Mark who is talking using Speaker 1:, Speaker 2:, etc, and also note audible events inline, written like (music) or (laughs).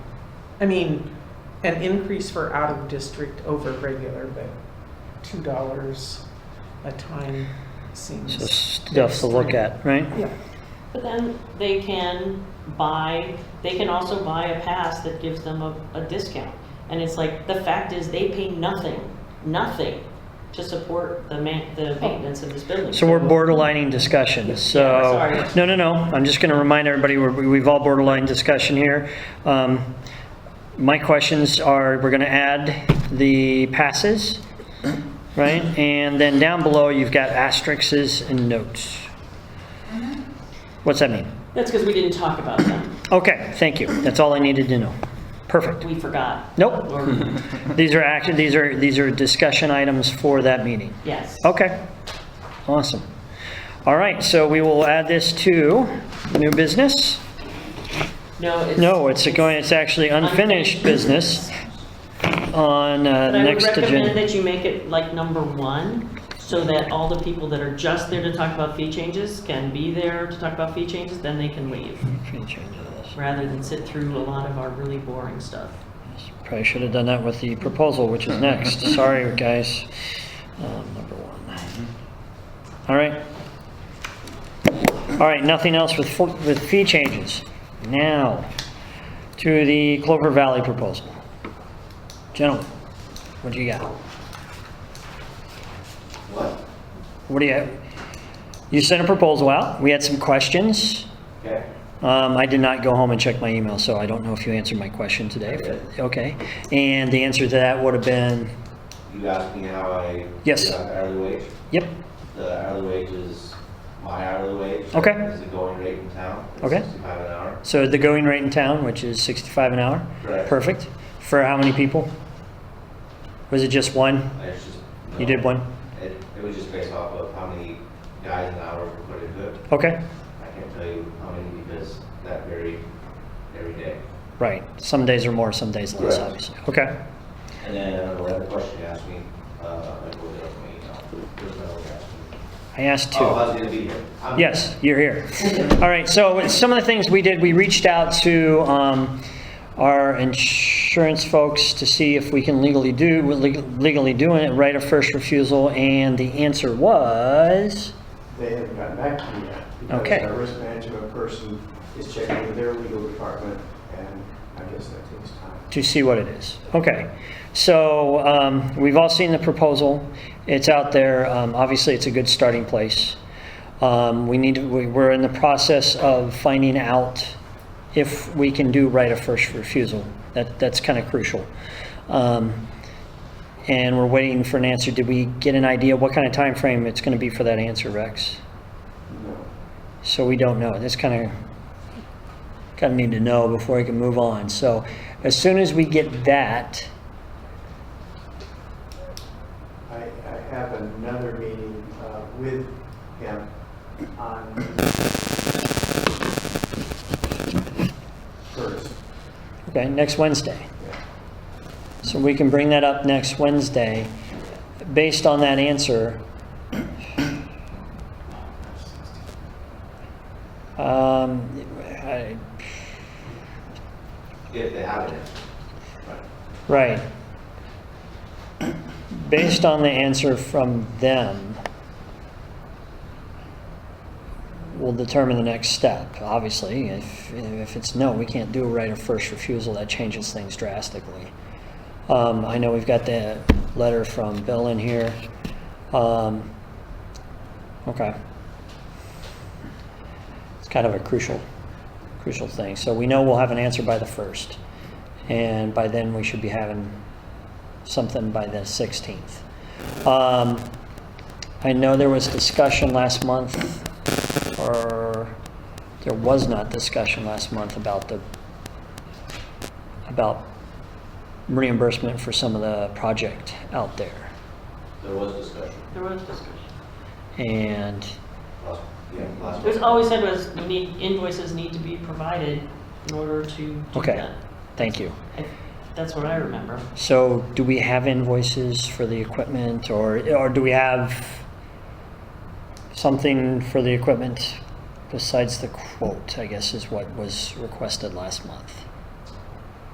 Speaker 1: I mean, an increase for out of district over regular, but two dollars a time
Speaker 2: So
Speaker 1: seems.
Speaker 2: stuff to look at, right?
Speaker 1: Yeah,
Speaker 3: But then they can buy, they can also buy a pass that gives them a, a discount. And it's like, the fact is, they pay nothing, nothing to support the ma, the maintenance of this building.
Speaker 2: So we're borderlining discussion, so.
Speaker 3: sorry.
Speaker 2: No, no, no, I'm just gonna remind everybody, we're- we've all borderline discussion here. Um, My questions are, we're gonna add the passes, right? And then down below, you've got asterisks and notes. What's that mean?
Speaker 3: That's because we didn't talk about them,
Speaker 2: Okay, thank you, that's all I needed to know. Perfect.
Speaker 3: we forgot.
Speaker 2: Nope, (laughs)
Speaker 3: Or,
Speaker 2: these are action, these are, these are discussion items for that meeting.
Speaker 3: yes.
Speaker 2: Okay, awesome. All right, so we will add this to new business?
Speaker 3: No, it's.
Speaker 2: No, it's going, it's actually unfinished business on uh,
Speaker 3: But I would
Speaker 2: next
Speaker 3: recommend
Speaker 2: agenda.
Speaker 3: that you make it like number one, so that all the people that are just there to talk about fee changes can be there to talk about fee changes, then they can leave, rather than sit through a lot of our really boring stuff.
Speaker 2: Probably should have done that with the proposal, which is next. Sorry, guys. Um, Number one. All right. All right, nothing else with, fo- with fee changes. Now, to the Clover Valley proposal. Gentlemen, what do you got?
Speaker 4: What?
Speaker 2: What do you, you sent a proposal out, we had some questions.
Speaker 4: Okay.
Speaker 2: Um, I did not go home and check my email, so I don't know if you answered my question today. but- Okay, and the answer to that would have been,
Speaker 4: You asked me how I.
Speaker 2: Yes.
Speaker 4: got the Hourly wage.
Speaker 2: yep,
Speaker 4: The hourly wage is my hourly wage.
Speaker 2: Okay.
Speaker 4: Is the going rate in town. It's
Speaker 2: Okay.
Speaker 4: Sixty-five an hour.
Speaker 2: so the going rate in town, which is 65 an hour?
Speaker 4: Correct.
Speaker 2: Perfect, for how many people? Was it just one?
Speaker 4: It's just.
Speaker 2: You did one?
Speaker 4: It, it was just based off of how many guys an hour were put into it.
Speaker 2: Okay,
Speaker 4: I can't tell you how many because that varied every day.
Speaker 2: right, some days are more, some days less,
Speaker 4: Correct.
Speaker 2: obviously. Okay,
Speaker 4: And then the other question you asked me, uh, I pulled it up from my email. There's no one asked me.
Speaker 2: I asked two.
Speaker 4: Oh, I was gonna be here. I'm-
Speaker 2: Yes, you're here. All right, so some of the things we did, we reached out to um, our insurance folks to see if we can legally do, we're leg- legally doing it, right of first refusal, and the answer was,
Speaker 5: They haven't gotten back to me yet.
Speaker 2: Okay.
Speaker 5: Because our risk management person is checking with their legal department, and I guess that takes time.
Speaker 2: to see what it is. Okay, so um, we've all seen the proposal, it's out there, Um, obviously, it's a good starting place. Um, We need, to- we- we're in the process of finding out if we can do right of first refusal. That, that's kind of crucial. Um, And we're waiting for an answer. Did we get an idea what kind of time frame it's going to be for that answer, Rex?
Speaker 5: No.
Speaker 2: So we don't know. That's kind of, kind of need to know before we can move on. So as soon as we get that,
Speaker 5: I, I have another meeting uh, with him on first.
Speaker 2: okay, next Wednesday.
Speaker 5: Yeah.
Speaker 2: So we can bring that up next Wednesday. Based on that answer, um, I,
Speaker 4: If they haven't.
Speaker 2: right. Based on the answer from them, we'll determine the next step, obviously. If, if it's no, we can't do a right of first refusal, that changes things drastically. Um, I know we've got the letter from Bill in here. Um, okay. It's kind of a crucial, crucial thing. So we know we'll have an answer by the first. And by then, we should be having something by the 16th. Um, I know there was discussion last month, or there was not discussion last month about the, about reimbursement for some of the project out there.
Speaker 4: There was discussion.
Speaker 3: There was discussion.
Speaker 2: And,
Speaker 4: Last, yeah,
Speaker 3: It
Speaker 4: last.
Speaker 3: was always said was, we need, invoices need to be provided in order to do
Speaker 2: Okay.
Speaker 3: that.
Speaker 2: thank you.
Speaker 3: I- That's what I remember.
Speaker 2: So do we have invoices for the equipment or, or do we have something for the equipment besides the quote, I guess is what was requested last month?